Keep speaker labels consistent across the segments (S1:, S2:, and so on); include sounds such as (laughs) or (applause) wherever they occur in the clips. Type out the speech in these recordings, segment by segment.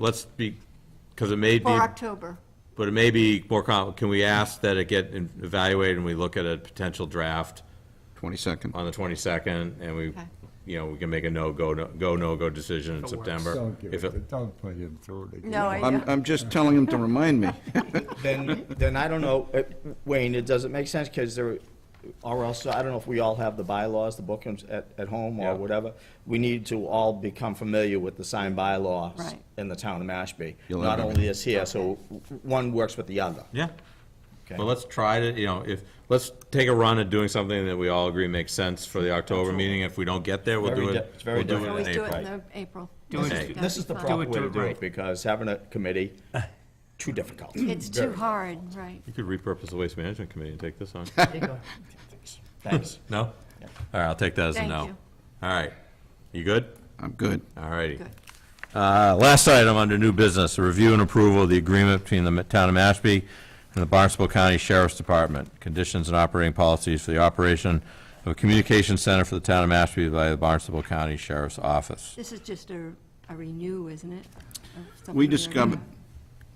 S1: let's be, because it may be,
S2: For October.
S1: but it may be more com, can we ask that it get in- evaluated and we look at a potential draft
S3: 22nd.
S1: on the 22nd and we,
S2: Okay.
S1: you know, we can make a no, go, no- go, no-go decision in September?
S4: Don't
S1: If
S4: give
S1: it,
S4: it, don't put him through it again.
S2: No, I
S3: I'm, I'm just telling him to remind me. (laughs)
S5: Then, then I don't know, uh, Wayne, it doesn't make sense, because there, or else, I don't know if we all have the bylaws, the bookings at, at home
S1: Yeah.
S5: or whatever. We need to all become familiar with the signed bylaws
S2: Right.
S5: in the town of Mashpee.
S3: You'll
S5: Not
S3: have it.
S5: only this here, so one works with the other.
S1: yeah,
S5: okay?
S1: but let's try to, you know, if, let's take a run at doing something that we all agree makes sense for the October meeting. If we don't get there, we'll
S5: Very
S1: do
S5: di-
S1: it,
S5: it's very
S1: we'll do
S5: different.
S1: it
S2: Always
S1: in
S2: do it in
S1: April.
S2: the April.
S6: Do it-
S2: It's gotta
S5: This is
S2: be
S5: the
S2: fun.
S5: proper way
S6: do
S5: to
S6: it
S5: do
S6: right.
S5: it, because having a committee, too difficult.
S2: It's too hard, right.
S1: You could repurpose the Waste Management Committee and take this
S5: (laughs)
S1: on.
S5: Thanks.
S1: No? All right, I'll take that as a
S2: Thank
S1: no.
S2: you.
S1: All right. You good?
S3: I'm good.
S1: All righty.
S2: Good.
S1: Uh, Last item under new business, review and approval of the agreement between the town of Mashpee and the Barnstable County Sheriff's Department, conditions and operating policies for the operation of a communication center for the town of Mashpee by the Barnstable County Sheriff's Office.
S2: This is just a a renew, isn't it? of something
S3: We
S2: already-
S3: discovered,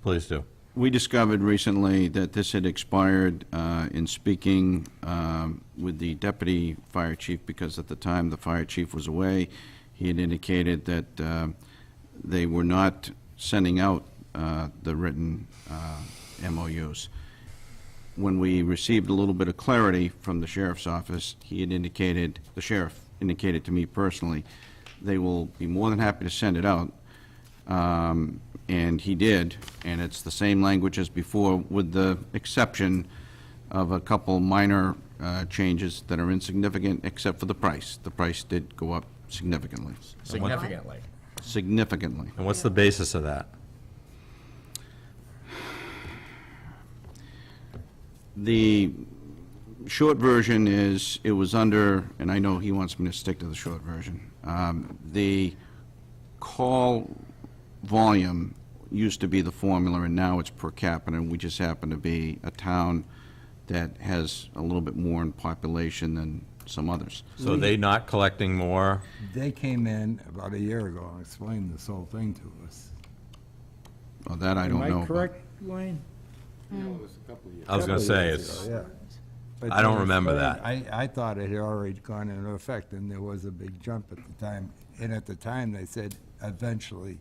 S1: Please do.
S3: we discovered recently that this had expired uh, in speaking um, with the deputy fire chief, because at the time the fire chief was away, he had indicated that um, they were not sending out uh, the written uh, MOUs. when we received a little bit of clarity from the sheriff's office, he had indicated, the sheriff indicated to me personally, they will be more than happy to send it out. Um, And he did, and it's the same language as before, with the exception of a couple minor uh, changes that are insignificant, except for the price. The price did go up significantly,
S5: Significantly.
S3: significantly.
S1: And what's the basis of that?
S3: The short version is, it was under, and I know he wants me to stick to the short version. Um, The call volume used to be the formula, and now it's per capita, and we just happen to be a town that has a little bit more in population than some others.
S1: So are they not collecting more?
S4: They came in about a year ago and explained this whole thing to us.
S3: Well, that I don't know.
S7: Am I
S3: about.
S7: correct, Wayne?
S1: I was going to say, it's,
S4: Yeah. But
S1: I don't
S4: they
S1: remember
S4: explained- I, I thought it had already gone into effect, and there was a big jump at the time. And at the time, they said eventually,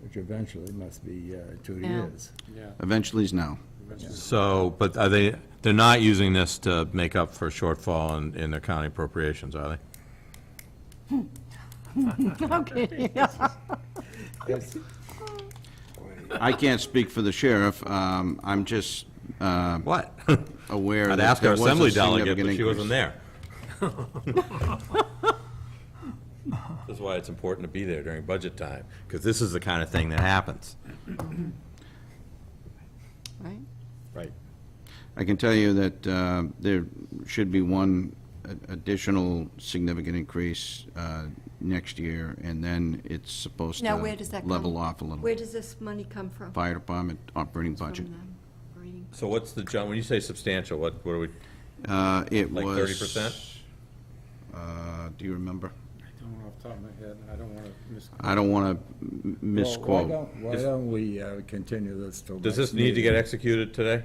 S4: which eventually must be uh, two
S2: Yeah.
S4: years.
S3: Eventually is now.
S1: so, but are they, they're not using this to make up for shortfall in, in their county appropriations, are they?
S2: (laughs) Okay.
S4: Yes.
S3: I can't speak for the sheriff. Um, I'm just uh,
S1: What?
S3: aware
S1: I'd
S3: that
S1: ask our
S3: there was a
S1: assembly delegate,
S3: significant
S1: but she wasn't
S3: increase.
S1: (laughs) there. That's why it's important to be there during budget time, because this is the kind of thing that happens.
S2: Right?
S5: Right.
S3: I can tell you that uh, there should be one a- additional significant increase uh, next year, and then it's supposed
S2: Now, where does
S3: to
S2: that come?
S3: level off a
S2: Where
S3: little.
S2: does this money come from?
S3: Fire department operating budget.
S2: From the operating-
S1: So what's the, jump? when you say substantial, what, what are we,
S3: Uh, It was...
S1: Like 30%?
S3: uh, Do you remember?
S7: I don't know off the top of my head, I don't want to miss.
S3: I don't want to
S4: Well,
S3: misquote.
S4: Why don't, why don't we uh, continue this till
S1: does
S4: next
S1: this need to get
S4: meeting?
S1: executed today?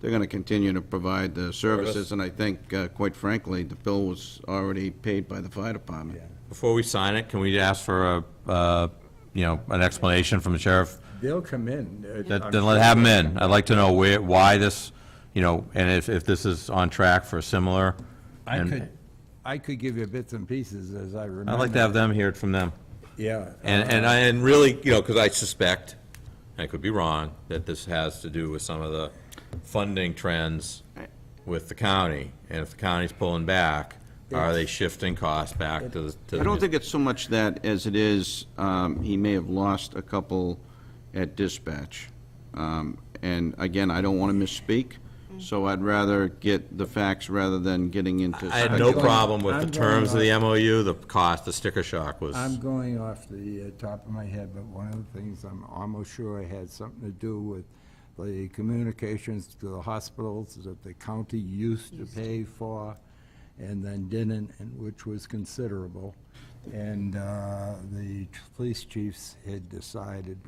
S3: They're going to continue to provide the services, and I think, uh, quite frankly, the bill was already paid by the fire department.
S4: Yeah.
S1: Before we sign it, can we ask for a, uh, you know, an explanation from the sheriff?
S4: They'll come in. uh,
S1: That-
S4: I'm
S1: Then let,
S4: sure.
S1: have him in. I'd like to know where, why this, you know, and if, if this is on track for similar.
S4: I
S1: and-
S4: could, I could give you bits and pieces as I remember.
S1: I'd like to have them hear it from them.
S4: Yeah. uh,
S1: And, and I, and really, you know, because I suspect, I could be wrong, that this has to do with some of the funding trends with the county. And if the county's pulling back, are they shifting costs back to, the- to?
S3: I don't
S1: the-
S3: think it's so much that as it is, um, he may have lost a couple at dispatch. Um, And again, I don't want to misspeak, so I'd rather get the facts rather than getting into.
S1: I had no
S3: speculation.
S1: problem with the
S4: I'm going
S1: terms of the MOU, the cost, the sticker shock was,
S4: I'm going off the uh, top of my head, but one of the things I'm almost sure had something to do with the communications to the hospitals that the county used to pay for and then didn't, and which was considerable. And uh, the police chiefs had decided